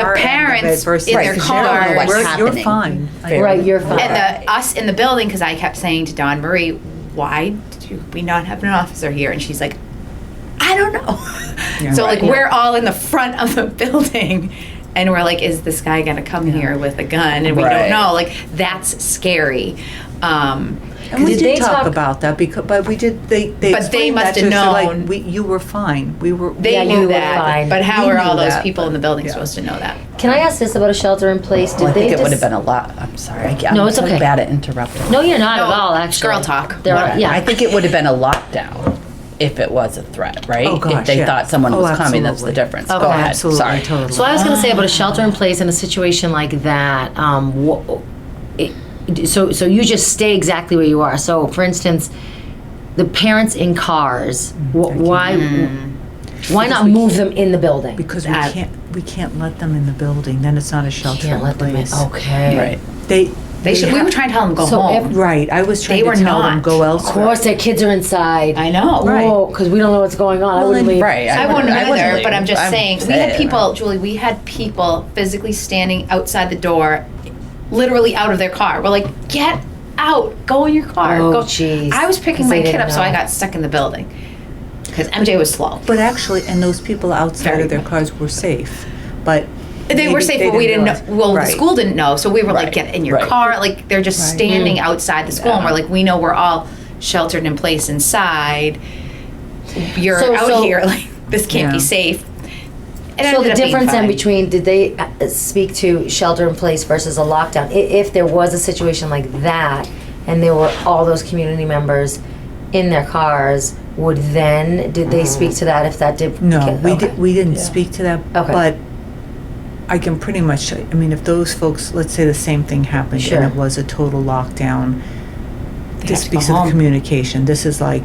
our end of it parents versus in their the cars. general, What's we're- You're happening. fine. Right, you're fine. and the, us in the building because I kept saying to Don Marie, "Why do we not have an officer here?" And she's like, "I don't know." Yeah. so like Right. we're all in the front of the building, and we're like, "Is this guy gonna come here with a gun?" And we Right. don't know. Like that's scary. Um, And we Did did they talk talk- about that because, but we did, they, they But they explained must that to have us, they're like, known. we, you were fine, we were. they Yeah, you knew were that, fine. but how We are all knew those that, people in the building yeah. supposed to know that? Can I ask this about a shelter in place? Did Well, I they think it would have dis- been a lot, I'm sorry, I- No, I'm it's so okay. bad at interrupting. No, you're not at No, all. Actually, girl talk. There are, yeah, I think it would have been a lockdown if it was a threat, right? Oh, gosh, If they yeah. thought someone Oh, was coming, that's the absolutely. difference. Oh, Go ahead, Absolutely, sorry. totally. So I was going to say about a shelter in place in a situation like that. Um, wh- it, so so you just stay exactly where you are. So for instance, the parents in cars. Wh- why Hmm. why not move them in the building? Because we That- can't, we can't let them in the building, then it's not a shelter can't in let them in. place. Oh. Okay. Right. They. They should. We ha- were trying to tell them go So home. every- Right, I was trying They to were tell them, not. go Of elsewhere. course, their kids are inside. I know. Right. because we don't know what's going on. I Well, wouldn't then- leave. Right. I wouldn't wouldn't- I wouldn't either, but leave. I'm just saying, we had saying. people, Julie, we had people physically standing outside the door, literally out of their car. We're like, get out, go in your car. Oh, go." jeez. I was picking 'Cause they my kid didn't up, so know. I got stuck in the building. Because MJ was slow. But actually, and those people outside Very of their much. cars were safe, but. They were maybe safe, but we didn't know, realize- well, the Right. school didn't know, so we were like, Right, get in your right. car, like, they're just Right. standing outside the school, and we're like, we know we're all sheltered in place inside. You're So- out so- here, like, this can't be Yeah. safe. It So ended the up being difference fine. in between, did they uh, speak to shelter in place versus a lockdown? I- If there was a situation like that, and there were all those community members in their cars, would then, did they speak to that if that did? No, we okay. did, we didn't speak to that, Okay. but I can pretty much, I mean, if those folks, let's say the same thing happened and Sure. it was a total lockdown, this have to go speaks of home. communication, this is like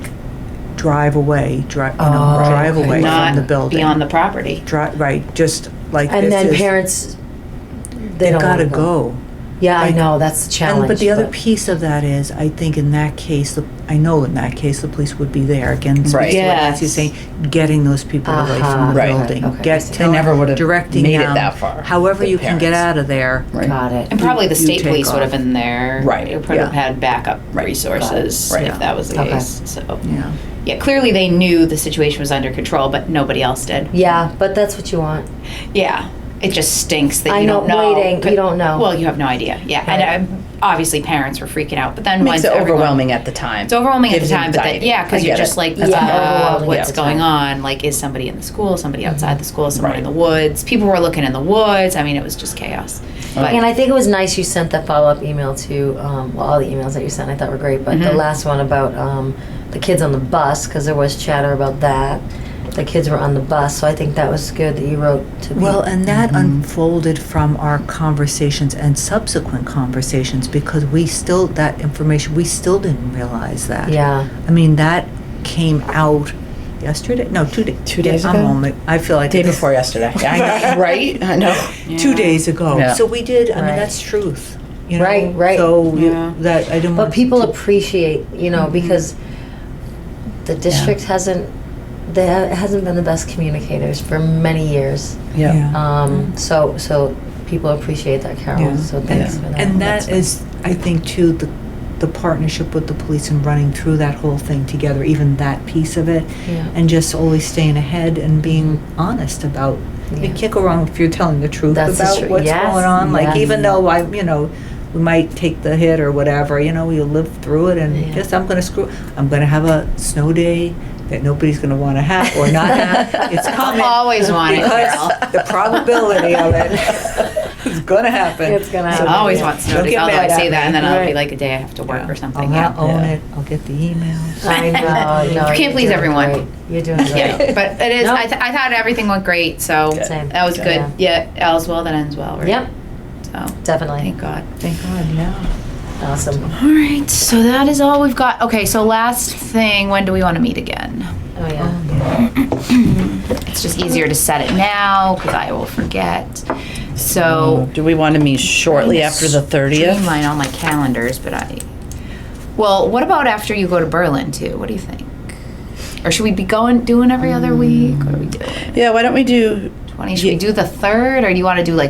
drive away, drive, you know, Oh, drive okay. away not from the building. beyond the property. Drive, right, just like this And then is- parents, they They don't wanna gotta go. Yeah, I Like- know, that's the And, challenge. but the other piece of that is, I think in that case, the- I know in that case, the police would be there again. speaks to what Yes. Nancy's saying, getting those people away Uh-huh. from the Right. building. Okay. Get, They tell- never would've directing made it them, that far, However the you can get parents. out of there. Right. Got it. And probably the you state take police would have off. been there. Right, It would have had backup resources Right. if that was the Okay. case, so. Yeah. Yeah, clearly they knew the situation was under control, but nobody else did. Yeah, but that's what you want. Yeah, it just stinks that I you know, don't know. waiting, but- you don't know. Well, you have no idea, yeah. And um, obviously, parents were freaking out, but then once Makes it everyone- overwhelming at the time. It's overwhelming at the Gives you time, but then, anxiety. yeah, I because you're get it. just like, That's yeah, fine. uh, Overwhelming at what's the going time. on? Like, is somebody in the school? Somebody outside the school? Someone in Right. the woods? People were looking in the woods. I mean, it was just chaos. But And I think it was nice you sent that follow up email to, um, well, all the emails that you sent I thought were great, but the last one about um, the kids on the bus, because there was chatter about that. The kids were on the bus, so I think that was good that you wrote to me. Well, and that Mm-hmm. unfolded from our conversations and subsequent conversations because we still, that information, we still didn't realize that. yeah. I mean, that came out yesterday. No, two days. Two days I'm ago? on it. I feel like Day it's- before yesterday, I know, right? I know. Two days ago. Yeah. So we did. I mean, Right. that's truth. You know? Right, right. So you- Yeah. that I didn't. But want people to- appreciate, you know, Mm-hmm. because the district hasn't, they ha- hasn't been the best communicators for many years. Yeah. Mm-hmm. Um, so, so people appreciate that, Carol. Yeah. So thanks Yeah. for that. And That's that is, I think, too, the, the partnership with the police and running through that whole thing together, even that piece of it, Yeah. and just always staying ahead and being honest about. You Yeah. can't go wrong if you're telling the truth That's the about tru- what's yes, going on. Like, yes. even though I, you know, we might take the hit or whatever, you know, you live through it, and Yeah. yes, I'm going to screw. I'm going to have a snow day that nobody's going to want to have or not have. It's coming. always want it, Carol. Because the probability of it is gonna happen. It's gonna So happen. I always don't- want snow don't days, get although mad I at say me. that, and then I'll be Right. like a day I have to work or something. I'll Yeah. not own Yeah. it, I'll get the emails. I know. no, You can't you're please doing everyone. great. You're doing great. Yeah, but it is. No. I, th- I thought everything went great, so Good. Same. that was Good. good. Yeah, all's well that ends well. Right? Yep, So definitely. thank God. Thank God, yeah. Awesome. All right, so that is all we've got. Okay, so last thing, when do we want to meet again? Oh, yeah. It's just easier to set it now because I will forget. So Do we want to meet shortly after the thirtieth? Streamline all my calendars, but I. Well, what about after you go to Berlin too? What do you think? Or should we be going doing every other week? What are we doing? Mm. Yeah, why don't we do 20? Should we do the third, or do you want to do like